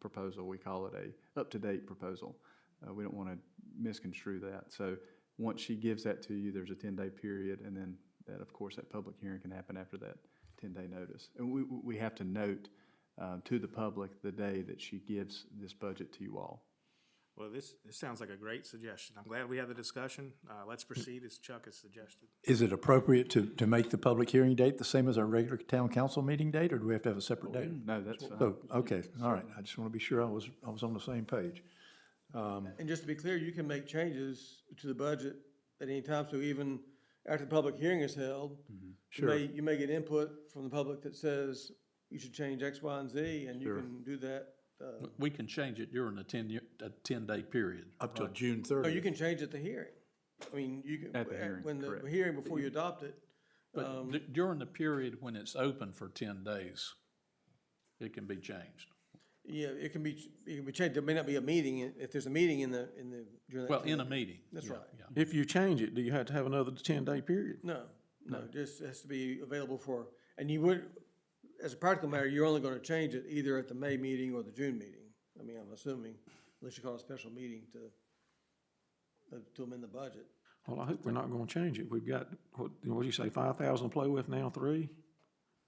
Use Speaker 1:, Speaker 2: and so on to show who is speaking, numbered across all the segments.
Speaker 1: proposal. We call it a up-to-date proposal. Uh, we don't want to misconstrue that. So once she gives that to you, there's a ten-day period, and then that, of course, that public hearing can happen after that ten-day notice. And we, we have to note, uh, to the public the day that she gives this budget to you all.
Speaker 2: Well, this, this sounds like a great suggestion. I'm glad we had the discussion. Uh, let's proceed as Chuck has suggested.
Speaker 3: Is it appropriate to, to make the public hearing date the same as our regular town council meeting date, or do we have to have a separate date?
Speaker 1: No, that's fine.
Speaker 3: So, okay, all right, I just want to be sure I was, I was on the same page.
Speaker 4: And just to be clear, you can make changes to the budget at any time, so even after the public hearing is held,
Speaker 1: Mm-hmm.
Speaker 4: you may, you may get input from the public that says you should change X, Y, and Z, and you can do that. uh,
Speaker 5: We can change it during a ten year, a ten day period.
Speaker 3: Up till June
Speaker 4: Or Oh, you
Speaker 3: thirtieth.
Speaker 4: can change at the hearing. I mean, you can,
Speaker 1: At the hearing,
Speaker 4: when the
Speaker 1: correct.
Speaker 4: hearing before you adopt it,
Speaker 5: But d- during the period when it's open for ten days, it can be changed.
Speaker 4: yeah, it can be, it can be changed. There may not be a meeting, if there's a meeting in the, in the, during that.
Speaker 5: Well,
Speaker 4: time.
Speaker 5: in a meeting.
Speaker 4: That's
Speaker 5: yeah,
Speaker 4: right.
Speaker 5: yeah.
Speaker 6: If you change it, do you have to have another ten-day period?
Speaker 4: No, no, just has to be available for, and you would, as a practical matter, you're only gonna change it either at the May meeting or the June meeting. I mean, I'm assuming, unless you call a special meeting to, uh, to amend the budget.
Speaker 6: Well, I hope we're not gonna change it. We've got, what, what'd you say, five thousand to play with now, three?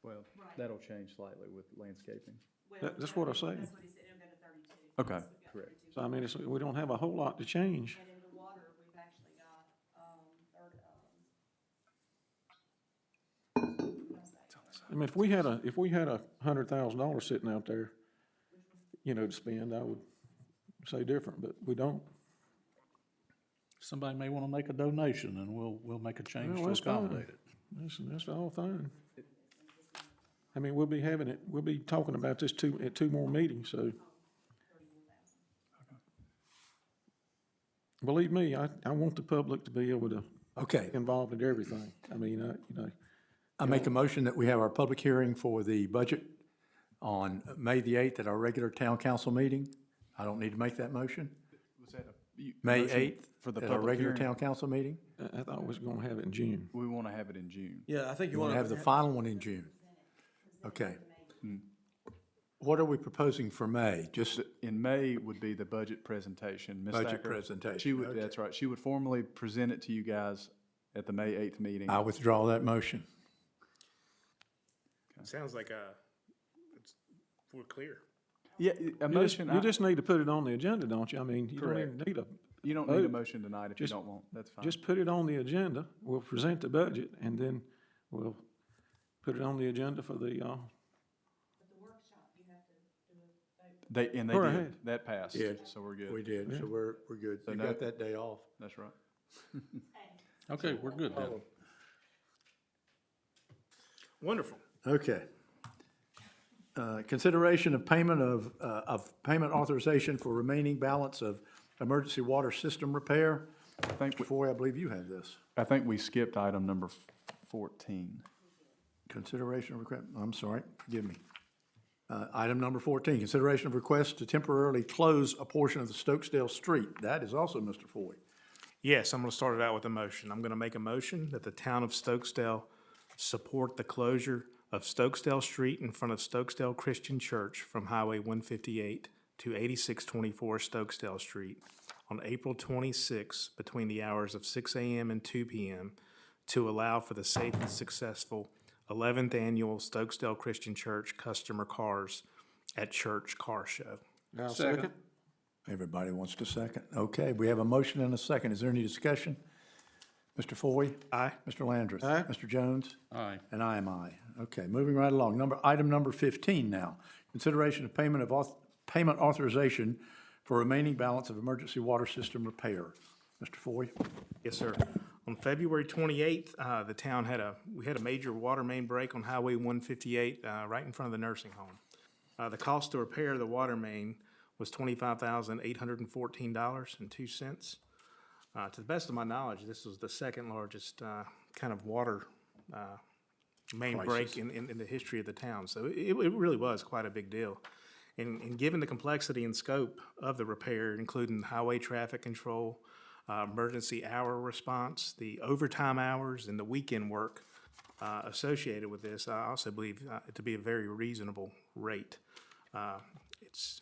Speaker 1: Well, that'll change slightly with landscaping.
Speaker 6: That- that's what I say.
Speaker 7: That's what he said, it'll go to thirty-two.
Speaker 1: Okay,
Speaker 7: So we've got
Speaker 1: correct.
Speaker 7: 32.
Speaker 6: So I mean, it's, we don't have a whole lot to change.
Speaker 7: And in the water, we've actually got, um, third, um,
Speaker 6: I mean, if we had a, if we had a hundred thousand dollars sitting out there, you know, to spend, I would say different, but we don't.
Speaker 5: Somebody may wanna make a donation and we'll, we'll make a change
Speaker 6: Well,
Speaker 5: to
Speaker 6: that's fine.
Speaker 5: accommodate it.
Speaker 6: That's, that's all fine. I mean, we'll be having it, we'll be talking about this two, at two more meetings, so. Believe me, I, I want the public to be able to
Speaker 3: Okay,
Speaker 6: involved in everything. I mean, uh, you know,
Speaker 3: I make a motion that we have our public hearing for the budget on May the eighth at our regular town council meeting. I don't need to make that motion.
Speaker 1: Was that a? you-
Speaker 3: May
Speaker 1: motion
Speaker 3: eighth
Speaker 1: For the
Speaker 3: at our
Speaker 1: public
Speaker 3: regular
Speaker 1: hearing?
Speaker 3: town council meeting.
Speaker 6: I, I thought we was gonna have it in June.
Speaker 1: We want to have it in June.
Speaker 4: Yeah, I think you
Speaker 3: We'll
Speaker 4: wanna.
Speaker 3: have the final one in June. Okay. What are we proposing for May? Just,
Speaker 1: In May would be the budget presentation. Ms.
Speaker 3: Budget
Speaker 1: Thacker,
Speaker 3: presentation,
Speaker 1: She would,
Speaker 3: okay.
Speaker 1: that's right. She would formally present it to you guys at the May eighth meeting.
Speaker 3: I withdraw that motion.
Speaker 2: Sounds like a, it's, we're clear.
Speaker 1: Yeah, e, a
Speaker 6: You just,
Speaker 1: motion,
Speaker 6: you
Speaker 1: I-
Speaker 6: just need to put it on the agenda, don't you? I mean, you don't even need a,
Speaker 1: you don't need a
Speaker 6: vote.
Speaker 1: motion tonight if you don't want. That's fine.
Speaker 6: just put it on the agenda. We'll present the budget and then we'll put it on the agenda for the, uh,
Speaker 1: They, and they
Speaker 6: Go
Speaker 1: did.
Speaker 6: ahead.
Speaker 1: That passed,
Speaker 3: Yeah.
Speaker 1: so we're good.
Speaker 3: We did, so we're, we're good. You
Speaker 1: no-
Speaker 3: got that day off.
Speaker 1: That's right.
Speaker 5: Okay, we're good then.
Speaker 2: Wonderful.
Speaker 3: Okay. Uh, Consideration of payment of, uh, of payment authorization for remaining balance of emergency water system repair.
Speaker 1: Thank we-
Speaker 3: Before, I believe you have this.
Speaker 1: I think we skipped item number f- fourteen.
Speaker 3: Consideration of request, I'm sorry, forgive me. Uh, Item number 14, consideration of request to temporarily close a portion of the Stokesdale Street. That is also Mr. Foy.
Speaker 2: Yes, I'm gonna start it out with a motion. I'm gonna make a motion that the town of Stokesdale support the closure of Stokesdale Street in front of Stokesdale Christian Church from Highway one fifty-eight to eighty-six twenty-four Stokesdale Street on April twenty-six between the hours of six AM and two PM to allow for the safe and successful eleventh annual Stokesdale Christian Church Customer Cars at Church Car Show.
Speaker 6: now second.
Speaker 3: Everybody wants to second. Okay, we have a motion and a second. Is there any discussion? Mr. Foy?
Speaker 2: Aye.
Speaker 3: Mr. Landris?
Speaker 6: Aye.
Speaker 3: Mr. Jones?
Speaker 5: Aye.
Speaker 3: And I am I. Okay, moving right along. Number, item number 15 now. Consideration of payment of, auth- payment authorization for remaining balance of emergency water system repair. Mr. Foy?
Speaker 2: Yes, sir. On February 28th, uh, the town had a, we had a major water main break on Highway 158, uh, right in front of the nursing home. Uh, The cost to repair the water main was $25,814.02. Uh, To the best of my knowledge, this was the second largest uh, kind of water uh, main break in, in in the history of the town. So it, it really was quite a big deal. And, and given the complexity and scope of the repair, including highway traffic control, uh, emergency hour response, the overtime hours, and the weekend work uh, associated with this, I also believe uh, it to be a very reasonable rate. Uh, It's,